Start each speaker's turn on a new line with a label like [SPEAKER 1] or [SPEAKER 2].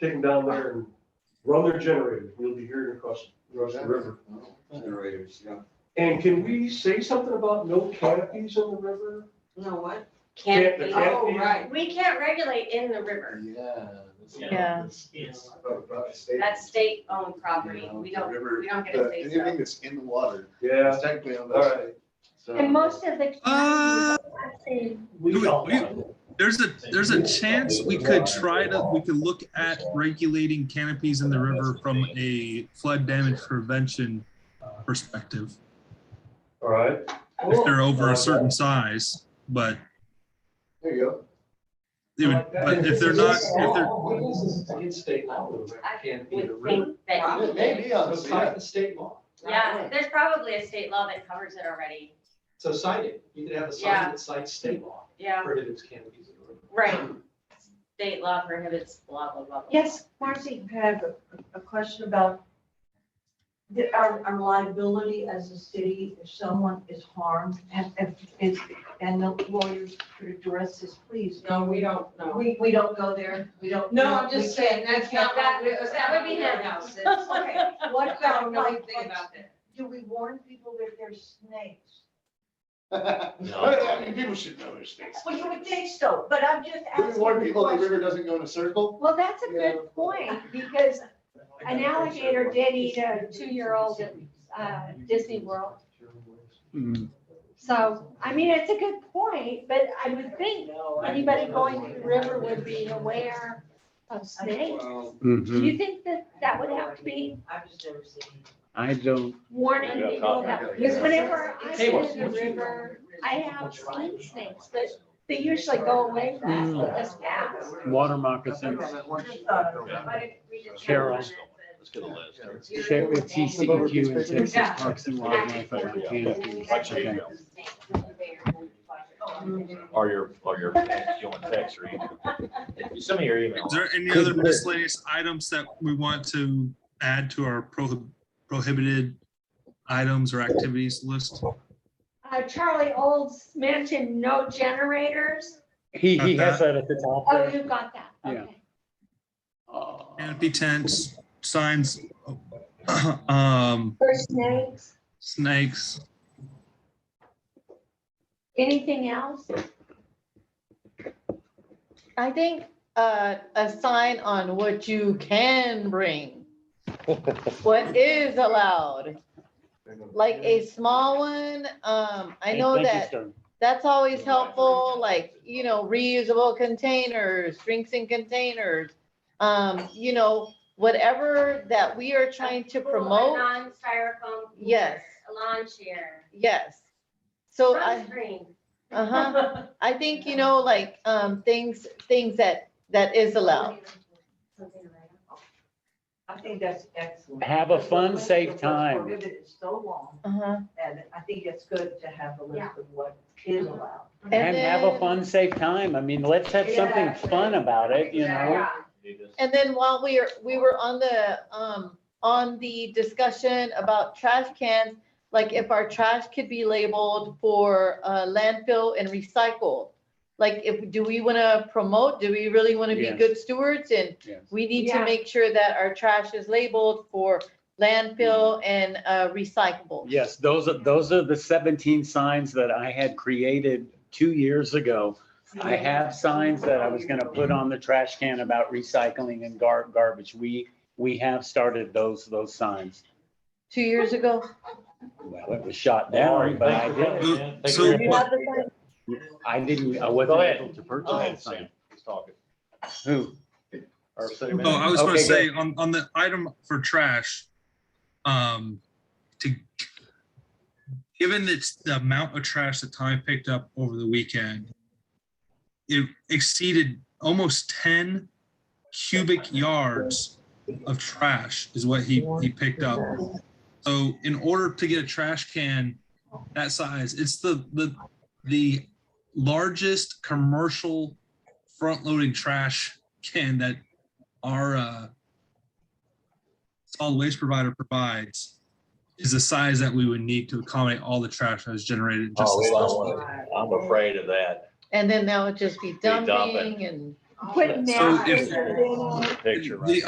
[SPEAKER 1] take them down there and run their generator. We'll be hearing across, across the river.
[SPEAKER 2] Generators, yeah.
[SPEAKER 1] And can we say something about no canopies in the river?
[SPEAKER 3] No, what?
[SPEAKER 1] Can't-
[SPEAKER 4] Can't
[SPEAKER 1] the
[SPEAKER 4] be.
[SPEAKER 1] can't
[SPEAKER 3] Oh,
[SPEAKER 1] be.
[SPEAKER 3] right.
[SPEAKER 4] We can't regulate in the river. Yeah.
[SPEAKER 5] Yes.
[SPEAKER 2] uh,
[SPEAKER 4] That's state-owned property. We don't, we don't get a say so.
[SPEAKER 2] Uh, Anything that's in the water,
[SPEAKER 1] Yeah,
[SPEAKER 2] it's technically on
[SPEAKER 1] All
[SPEAKER 2] the
[SPEAKER 1] right.
[SPEAKER 2] state. so-
[SPEAKER 6] And most of the
[SPEAKER 7] Uh,
[SPEAKER 6] counties,
[SPEAKER 5] We
[SPEAKER 7] Do it,
[SPEAKER 5] don't
[SPEAKER 7] we-
[SPEAKER 5] want it.
[SPEAKER 7] There's a, there's a chance we could try to, we could look at regulating canopies in the river from a flood damage prevention perspective,
[SPEAKER 1] all right.
[SPEAKER 7] if they're over a certain size, but
[SPEAKER 2] There you go.
[SPEAKER 7] it would, but if they're not, if they're,
[SPEAKER 1] What is this against state law? though?
[SPEAKER 4] I
[SPEAKER 1] Can't be in the
[SPEAKER 4] would
[SPEAKER 1] river.
[SPEAKER 4] think that,
[SPEAKER 3] Probably.
[SPEAKER 2] Maybe on the
[SPEAKER 1] It's not
[SPEAKER 2] state.
[SPEAKER 1] the state law.
[SPEAKER 4] yeah, there's probably a state law that covers it already.
[SPEAKER 1] So cite it. You could have a sign
[SPEAKER 4] Yeah.
[SPEAKER 1] that cites state law
[SPEAKER 4] Yeah,
[SPEAKER 1] prohibits canopies in the river.
[SPEAKER 4] right. State law prohibits blah, blah, blah. blah.
[SPEAKER 8] Yes, Marcy had a, a question about the, our, our liability as a city if someone is harmed and, and it's, and the lawyers could address this, please.
[SPEAKER 3] No, we don't know.
[SPEAKER 8] We, we don't go there, we don't.
[SPEAKER 3] No, I'm just saying, that's not.
[SPEAKER 4] That-
[SPEAKER 3] what we-
[SPEAKER 4] that would be
[SPEAKER 3] that's
[SPEAKER 4] him.
[SPEAKER 3] not what we
[SPEAKER 8] That's-
[SPEAKER 3] know.
[SPEAKER 8] Okay, what
[SPEAKER 3] What, I
[SPEAKER 8] about
[SPEAKER 3] don't know
[SPEAKER 8] like,
[SPEAKER 3] anything about that.
[SPEAKER 8] do we warn people that they're snakes?
[SPEAKER 2] I mean, people should know there's states.
[SPEAKER 8] Well, you would think so, but I'm just
[SPEAKER 2] Do we
[SPEAKER 8] asking.
[SPEAKER 2] warn
[SPEAKER 8] the
[SPEAKER 2] people the
[SPEAKER 8] question.
[SPEAKER 2] river doesn't go in a circle?
[SPEAKER 6] well, that's a good point, because an alligator did eat a two-year-old at uh, Disney World.
[SPEAKER 7] Mm.
[SPEAKER 6] So, I mean, it's a good point, but I would think anybody going to the river would be aware of snakes.
[SPEAKER 2] Well,
[SPEAKER 6] Do
[SPEAKER 9] Mm-hmm.
[SPEAKER 6] you think that that would have to be
[SPEAKER 8] I've just never seen. it.
[SPEAKER 9] I don't,
[SPEAKER 6] warning people about? Because whenever I've been in the river, I have seen snakes, but they usually go away fast, let us pass.
[SPEAKER 9] water moccasins,
[SPEAKER 8] Just thought of it.
[SPEAKER 4] What if we just have
[SPEAKER 9] Carol.
[SPEAKER 4] one that says-
[SPEAKER 5] Let's get a list.
[SPEAKER 9] share with TCEQ and Texas Parks and Wildlife about canopies. Okay.
[SPEAKER 5] Or your, or your, you want text or email. Some of your
[SPEAKER 7] is
[SPEAKER 5] emails.
[SPEAKER 7] there any other miscellaneous items that we want to add to our prohib- prohibited items or activities list?
[SPEAKER 6] Uh, Charlie Olds mentioned no generators.
[SPEAKER 9] He, he has that at the
[SPEAKER 6] Oh,
[SPEAKER 9] top there.
[SPEAKER 6] you got that,
[SPEAKER 9] Yeah.
[SPEAKER 6] okay.
[SPEAKER 7] Canopy tents, signs, um,
[SPEAKER 6] For snakes,
[SPEAKER 7] snakes,
[SPEAKER 6] anything else?
[SPEAKER 10] I think uh, a sign on what you can bring, what is allowed, like a small one. Um, I
[SPEAKER 9] Hey,
[SPEAKER 10] know
[SPEAKER 9] thank you,
[SPEAKER 10] that
[SPEAKER 9] sir.
[SPEAKER 10] that's always helpful, like, you know, reusable containers, drinks in containers. Um, you know, whatever that we are trying to
[SPEAKER 4] Cool, a
[SPEAKER 10] promote,
[SPEAKER 4] Non-styrofoam.
[SPEAKER 10] Yes.
[SPEAKER 4] cooler, A lawn chair.
[SPEAKER 10] yes. So I,
[SPEAKER 4] Sunscreen.
[SPEAKER 10] uh-huh. I think, you know, like, um, things, things that, that is allowed.
[SPEAKER 8] I think that's excellent.
[SPEAKER 9] Have a fun, safe
[SPEAKER 8] What's
[SPEAKER 9] time.
[SPEAKER 8] prohibited is so long,
[SPEAKER 10] Uh-huh.
[SPEAKER 8] and I think it's good to have a list of what is allowed.
[SPEAKER 9] And have a
[SPEAKER 10] then-
[SPEAKER 9] fun, safe time. I mean, let's have something
[SPEAKER 8] Yeah.
[SPEAKER 9] fun about it, you know?
[SPEAKER 4] Yeah.
[SPEAKER 10] And then while we are, we were on the, um, on the discussion about trash cans, like if our trash could be labeled for, uh, landfill and recycled. Like if, do we want to promote, do we really want to be
[SPEAKER 9] Yes.
[SPEAKER 10] good stewards and
[SPEAKER 9] Yes.
[SPEAKER 10] we need to
[SPEAKER 3] Yeah.
[SPEAKER 10] make sure that our trash is labeled for landfill and, uh, recyclable.
[SPEAKER 9] Yes, those are, those are the 17 signs that I had created two years ago. I have signs that I was gonna put on the trash can about recycling and gar- garbage. We, we have started those, those signs.
[SPEAKER 10] Two years ago.
[SPEAKER 9] Well, it was shot down, but I did.
[SPEAKER 7] did. So-
[SPEAKER 10] You have the sign?
[SPEAKER 9] I didn't, I
[SPEAKER 5] Go
[SPEAKER 9] wasn't
[SPEAKER 5] ahead.
[SPEAKER 9] able
[SPEAKER 5] Go
[SPEAKER 9] to
[SPEAKER 5] ahead,
[SPEAKER 9] purchase that
[SPEAKER 5] Sam.
[SPEAKER 9] sign.
[SPEAKER 5] He's talking.
[SPEAKER 9] Who?
[SPEAKER 2] Our city
[SPEAKER 7] Oh, I was gonna
[SPEAKER 9] Okay,
[SPEAKER 7] say, on, on the item for trash, um, to, given it's the amount of trash that Tommy picked up over the weekend, it exceeded almost ten cubic yards of trash is what he, he picked up. So in order to get a trash can that size, it's the, the, the largest commercial front-loading trash can that our uh, solid waste provider provides is the size that we would need to accommodate all the trash that is generated. just
[SPEAKER 5] Oh, we
[SPEAKER 7] this
[SPEAKER 5] don't
[SPEAKER 7] last
[SPEAKER 5] want
[SPEAKER 7] week.
[SPEAKER 5] it. I'm afraid of that.
[SPEAKER 10] And then that would just be
[SPEAKER 5] dumping.
[SPEAKER 10] dumping and
[SPEAKER 11] Put
[SPEAKER 4] So
[SPEAKER 11] masks
[SPEAKER 4] if-
[SPEAKER 11] in it.
[SPEAKER 4] Picture, right?
[SPEAKER 9] The